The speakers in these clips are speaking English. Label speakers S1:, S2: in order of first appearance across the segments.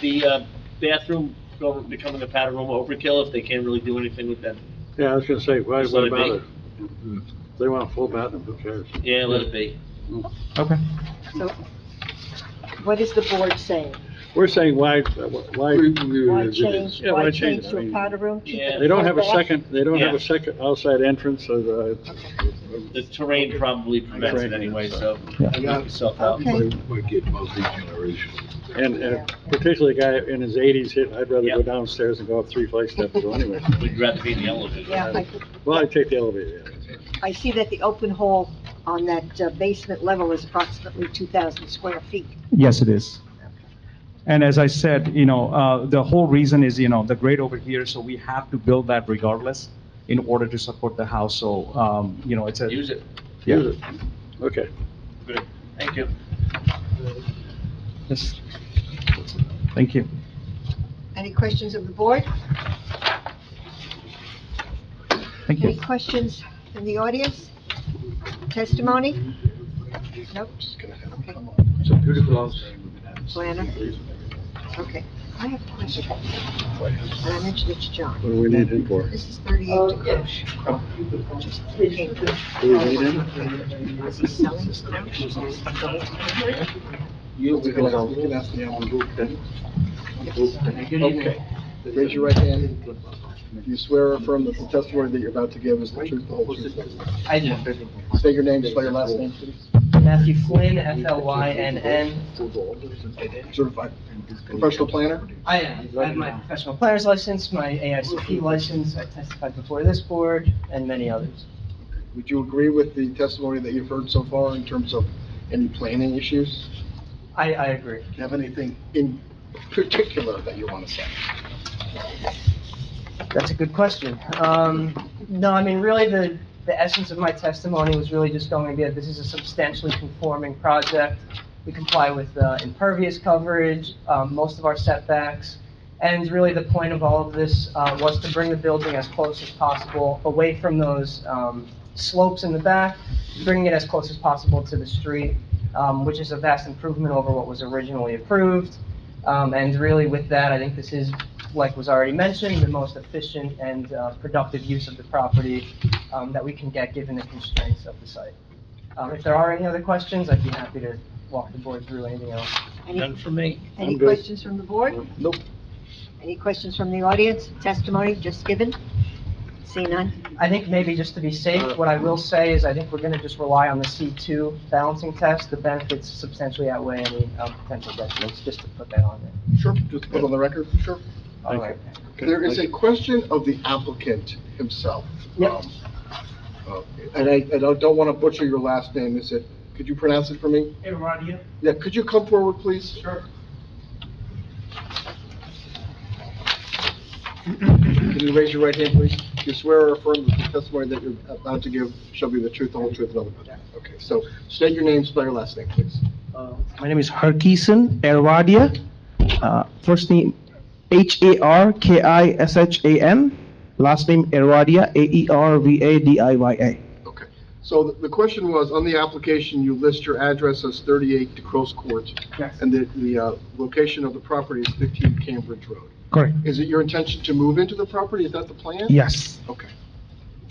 S1: the uh, bathroom go- becoming a powder room overkill if they can't really do anything with that?
S2: Yeah, I was gonna say, why,
S1: Just let
S2: what
S1: it
S2: about
S1: be.
S2: it? If They want a full bathroom, who cares?
S1: Yeah, let it be.
S3: Okay.
S4: So, what is the board saying?
S2: We're saying why, uh, why,
S4: Why change,
S2: Yeah,
S4: why
S2: why change
S4: change
S2: it? I
S4: to a
S2: mean,
S4: powder room? Keep it
S1: Yeah.
S2: they don't have a
S4: full bath?
S2: second, they don't have
S1: Yeah.
S2: a second outside entrance, so the,
S1: The terrain probably prevents it
S2: Terrain,
S1: anyway,
S2: yeah.
S1: so
S3: Yeah.
S1: knock yourself out.
S4: Okay.
S5: Would get multi-generational.
S2: and, and particularly a guy in his eighties hit, I'd rather
S1: Yeah.
S2: go downstairs and go up three flights steps to go anyway.
S1: We'd rather be in the elevator.
S4: Yeah, I,
S2: Well, I'd take the elevator, yeah.
S4: I see that the open hall on that uh, basement level is approximately two thousand square feet.
S3: Yes, it is. And as I said, you know, uh, the whole reason is, you know, the grade over here, so we have to build that regardless in order to support the house, so, um, you know, it's a.
S1: Use it.
S3: Yeah.
S2: Use it. Okay.
S1: Good. Thank you.
S3: Yes. Thank you.
S4: Any questions of the board?
S3: Thank
S4: Any
S3: you.
S4: questions in the audience? Testimony? Nope, okay,
S5: It's a beautiful house.
S4: planner? Okay, I have a question, and I mentioned it to John.
S2: What do we need him for?
S4: This is thirty-eight DeCoche. Just came through.
S2: Do we need him?
S4: Is he selling his couch? Is he selling his couch?
S5: You can ask, you can ask me, I'm group then.
S1: Okay.
S5: Raise your right hand. Do you swear or affirm that the testimony that you're about to give is the truth, the whole truth?
S6: I do.
S5: Say your name, spell your last name, please.
S6: Matthew Flynn, F L Y N N.
S5: Certified professional planner?
S6: I am. I have my professional planner's license, my AICP license. I testified before this board and many others.
S5: Would you agree with the testimony that you've heard so far in terms of any planning issues?
S6: I, I agree.
S5: Do you have anything in particular that you want to say?
S6: That's a good question. Um, no, I mean, really, the, the essence of my testimony was really just going to be that this is a substantially conforming project. We comply with uh, impervious coverage, um, most of our setbacks. And really, the point of all of this uh, was to bring the building as close as possible away from those um, slopes in the back, bringing it as close as possible to the street, um, which is a vast improvement over what was originally approved. Um, And really, with that, I think this is like was already mentioned, the most efficient and uh, productive use of the property um, that we can get given the constraints of the site. Um, If there are any other questions, I'd be happy to walk the board through anything else.
S1: None
S4: Any,
S1: for me.
S4: any
S2: I'm good.
S4: questions from the board?
S5: Nope.
S4: Any questions from the audience? Testimony just given? See none?
S6: I think maybe just to be safe, what I will say is I think we're going to just rely on the C2 balancing test. The benefits substantially outweigh any um, potential detriments, just to put that on there.
S5: Sure, just put on the record, sure.
S6: All
S2: Thank you.
S6: right.
S5: There is a question of the applicant himself.
S6: Yep.
S5: Um, uh, And I, and I don't want to butcher your last name, is it, could you pronounce it for me? Yeah, could you come forward, please? Sure. Can you raise your right hand, please? Do you swear or affirm that the testimony that you're about to give shall be the truth, the whole truth, and nothing but the truth? Okay, so state your name, spell your last name, please.
S6: Uh, My name is Harkison Erwadia. Uh, First name H-A-R-K-I-S-H-A-N. Last name Erwadia, E A-E-R-V-A-D-I-Y-A.
S5: Okay, so the- the question was, on the application, you list your address as 38 DeCros Court,
S6: Yes.
S5: and the, the uh, location of the property is 15 Cambridge Road.
S3: Correct.
S5: Is it your intention to move into the property? Is that the plan?
S3: Yes.
S5: Okay.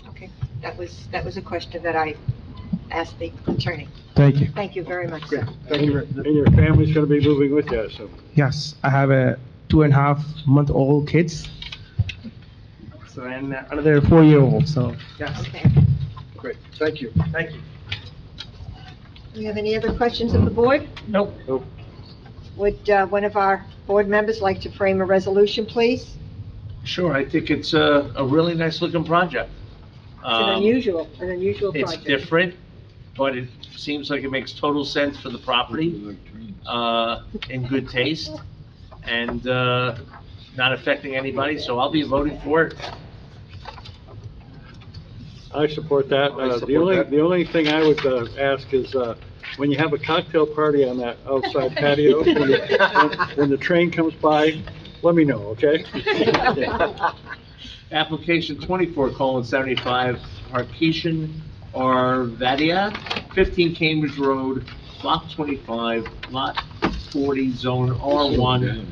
S4: Okay, that was, that was a question that I asked the attorney.
S3: Thank you.
S4: Thank you very much,
S5: Great,
S4: sir.
S5: thank you very
S2: And your family's gonna be moving with you, so.
S3: Yes, I have a two and a half month old kids. So, and another four year old, so.
S6: Yes,
S4: Okay.
S5: Great, thank you.
S6: thank you.
S4: Do you have any other questions of the board?
S6: Nope.
S2: Nope.
S4: Would uh, one of our board members like to frame a resolution, please? It's
S1: Sure, I think it's a, a really nice looking project.
S4: an
S1: Um,
S4: unusual, an unusual
S1: It's
S4: project.
S1: different, but it seems like it makes total sense for the property, uh, in good taste, and, uh, not affecting anybody, so I'll be voting for it.
S2: I support that.
S5: I
S2: Uh, The
S5: support
S2: only,
S5: that.
S2: the only thing I would uh, ask is, uh, when you have a cocktail party on that outside patio, when the- when- when the train comes by, let me know, okay?
S1: Application twenty-four colon seventy-five, Harkishan Arvadia, fifteen Cambridge Road, block twenty-five, lot forty, zone R one,